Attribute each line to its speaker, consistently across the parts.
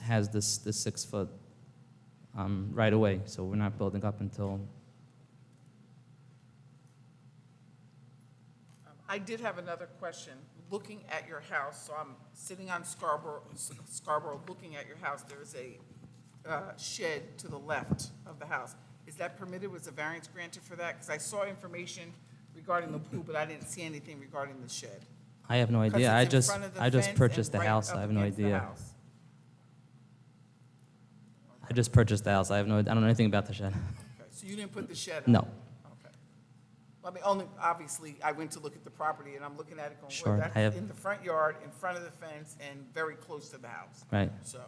Speaker 1: has this, this six foot um, right away, so we're not building up until,
Speaker 2: Um, I did have another question. Looking at your house, so I'm sitting on Scarborough, Scarborough, looking at your house, there is a uh, shed to the left of the house. Is that permitted? Was a variance granted for that? Because I saw information regarding the pool, but I didn't see anything regarding the shed.
Speaker 1: I have no
Speaker 2: 'Cause
Speaker 1: idea.
Speaker 2: it's
Speaker 1: I
Speaker 2: in
Speaker 1: just,
Speaker 2: front of the
Speaker 1: I
Speaker 2: fence
Speaker 1: just
Speaker 2: and
Speaker 1: purchased the
Speaker 2: right
Speaker 1: house,
Speaker 2: up
Speaker 1: I have no
Speaker 2: against the
Speaker 1: idea.
Speaker 2: house.
Speaker 1: I just purchased the house, I have no, I don't know anything about the shed.
Speaker 2: Okay, So you didn't put the shed up?
Speaker 1: No.
Speaker 2: Okay. Well, I mean, only, obviously, I went to look at the property, and I'm looking at it going,
Speaker 1: Sure,
Speaker 2: well,
Speaker 1: I have-
Speaker 2: that's in the front yard, in front of the fence, and very close to the house.
Speaker 1: Right.
Speaker 2: So,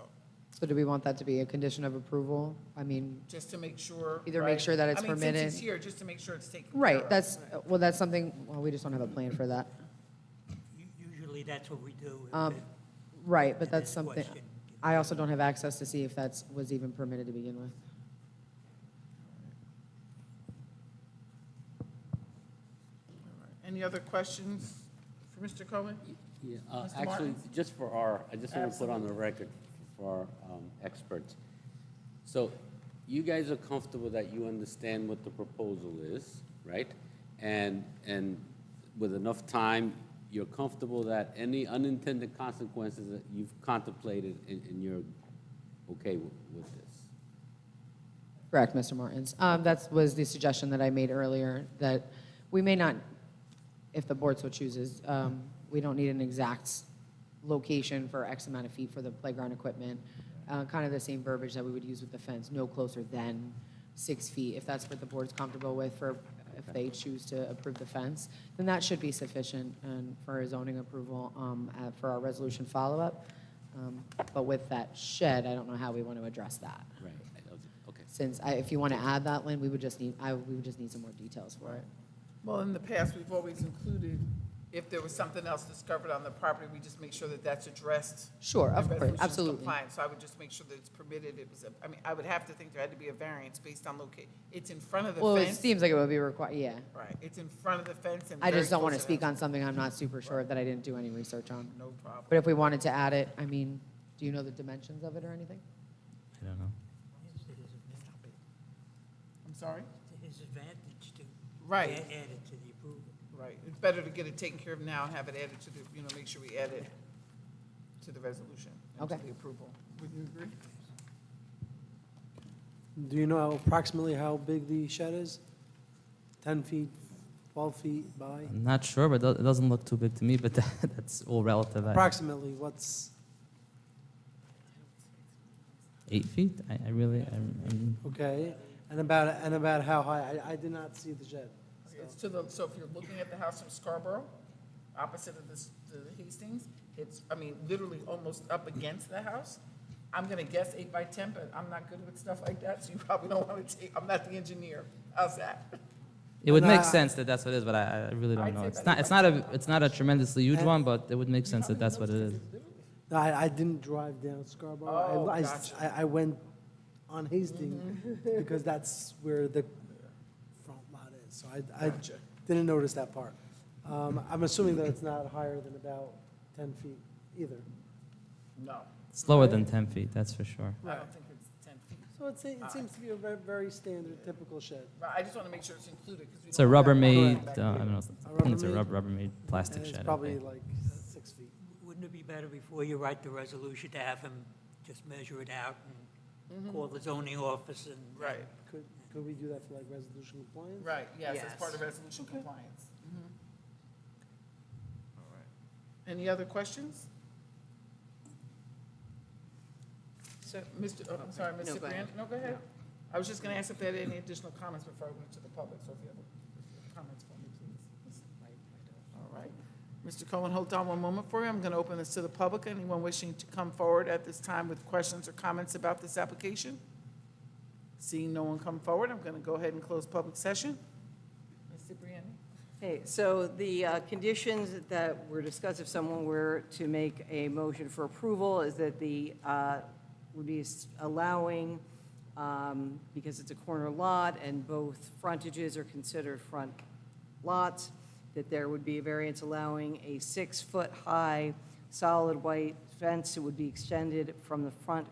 Speaker 3: So do we want that to be a condition of approval? I mean,
Speaker 2: just to make sure.
Speaker 3: Either make
Speaker 2: right?
Speaker 3: sure that it's
Speaker 2: I mean,
Speaker 3: permitted.
Speaker 2: since it's here, just to make sure it's taken care of.
Speaker 3: right, that's, well, that's something, well, we just don't have a plan for that.
Speaker 4: U- Usually that's what we do. if
Speaker 3: Um,
Speaker 4: it-
Speaker 3: Right, but
Speaker 4: And
Speaker 3: that's
Speaker 4: then
Speaker 3: something,
Speaker 4: question.
Speaker 3: I also don't have access to see if that's, was even permitted to begin with.
Speaker 2: Any other questions for Mr. Cohen?
Speaker 5: Yeah, uh,
Speaker 2: Mr.
Speaker 5: actually,
Speaker 2: Martins?
Speaker 5: just for our, I just want to put on the record for our um, experts. So you guys are comfortable that you understand what the proposal is, right? And, and with enough time, you're comfortable that any unintended consequences that you've contemplated and, and you're okay with, with this?
Speaker 3: Correct, Mr. Martins. Um, That was the suggestion that I made earlier, that we may not, if the board so chooses, um, we don't need an exact location for X amount of feet for the playground equipment, Uh, kind of the same verbiage that we would use with the fence, no closer than six feet, if that's what the board's comfortable with for, if they choose to approve the fence, then that should be sufficient and for a zoning approval um, uh, for our resolution follow-up. Um, But with that shed, I don't know how we want to address that
Speaker 5: Right. Okay.
Speaker 3: since I, if you want to add that, Lynn, we would just need, I, we would just need some more details for it.
Speaker 2: Well, in the past, we've always included, if there was something else discovered on the property, we just make sure that that's addressed.
Speaker 3: Sure,
Speaker 2: and
Speaker 3: of course,
Speaker 2: resolution's
Speaker 3: absolutely.
Speaker 2: compliant. So I would just make sure that it's permitted, it was, a- I mean, I would have to think there had to be a variance based on location. It's in front of the
Speaker 3: Well, it
Speaker 2: fence.
Speaker 3: seems like it would be required, yeah.
Speaker 2: Right, it's in front of the fence and
Speaker 3: I
Speaker 2: very
Speaker 3: just don't want to
Speaker 2: close
Speaker 3: speak
Speaker 2: the
Speaker 3: on something I'm not super sure of that I didn't do any research on.
Speaker 2: house. No problem.
Speaker 3: But if we wanted to add it, I mean, do you know the dimensions of it or anything?
Speaker 1: I don't know.
Speaker 4: It's to his advantage-
Speaker 2: I'm sorry?
Speaker 4: to his advantage to.
Speaker 2: Right.
Speaker 4: add- Add it to the approval.
Speaker 2: Right, it's better to get it taken care of now and have it added to the, you know, make sure we add it to the resolution. and to
Speaker 3: Okay.
Speaker 2: the approval. Would you agree?
Speaker 6: Do you know approximately how big the shed is? 10 feet, 12 feet by?
Speaker 1: I'm not sure, but it doesn't look too big to me, but that's all relative. I-
Speaker 6: Approximately, what's,
Speaker 1: Eight feet? I, I really, I'm, I'm-
Speaker 6: okay, and about, and about how high? I, I did not see the shed. so.
Speaker 2: It's to the, so if you're looking at the house from Scarborough, opposite of this, the Hastings, it's, I mean, literally almost up against the house. I'm gonna guess eight by ten, but I'm not good with stuff like that, so you probably don't wanna take, I'm not the engineer. How's that?
Speaker 1: it would make
Speaker 6: Nah.
Speaker 1: sense that that's what it is, but I, I really don't
Speaker 2: I'd
Speaker 1: know.
Speaker 2: say
Speaker 1: It's
Speaker 2: that
Speaker 1: not,
Speaker 2: it's
Speaker 1: it's not a, it's not a tremendously huge
Speaker 6: And-
Speaker 1: one, but it would make sense that that's what it is.
Speaker 6: No, I, I didn't drive down Scarborough.
Speaker 2: Oh,
Speaker 6: I- I-
Speaker 2: gotcha.
Speaker 6: I, I went on Hastings because that's where the front lot is. So I, I
Speaker 2: Gotcha.
Speaker 6: didn't notice that part. Um, I'm assuming that it's not higher than about 10 feet either.
Speaker 2: No,
Speaker 1: It's lower than ten feet, that's for sure.
Speaker 2: I don't think it's ten feet.
Speaker 6: So it's, it seems to be a very, very standard, typical shed.
Speaker 2: But I just wanna make sure it's included, because we.
Speaker 1: It's a
Speaker 2: don't have that
Speaker 1: Rubbermaid,
Speaker 2: back
Speaker 1: uh,
Speaker 2: there.
Speaker 1: I don't know, I think it's a rub- Rubbermaid
Speaker 6: And
Speaker 1: plastic
Speaker 6: it's
Speaker 1: shed. I
Speaker 6: probably
Speaker 1: think.
Speaker 6: like six feet.
Speaker 4: Wouldn't it be better before you write the resolution to have him just measure it out and call the zoning office and?
Speaker 2: Right.
Speaker 6: Could, could we do that for like resolution compliance?
Speaker 2: Right, yes, as part of
Speaker 4: Yes.
Speaker 2: resolution compliance. All right. Any other questions? So, Mr., oh, I'm sorry,
Speaker 3: No,
Speaker 2: Mr.
Speaker 3: go ahead.
Speaker 2: Grant, no, go ahead. I was just gonna ask if there are any additional comments before I went to the public, so if you have a- comments for me, please. All right. Mr. Cohen, hold on one moment for me. I'm gonna open this to the public. Anyone wishing to come forward at this time with questions or comments about this application? Seeing no one come forward, I'm gonna go ahead and close public session. Mr. Brianna?
Speaker 7: Okay, so the uh, conditions that were discussed, if someone were to make a motion for approval, is that the, uh, would be s- allowing, um, because it's a corner lot and both frontages are considered front lots, that there would be a variance allowing a six-foot-high solid white fence that would be extended from the front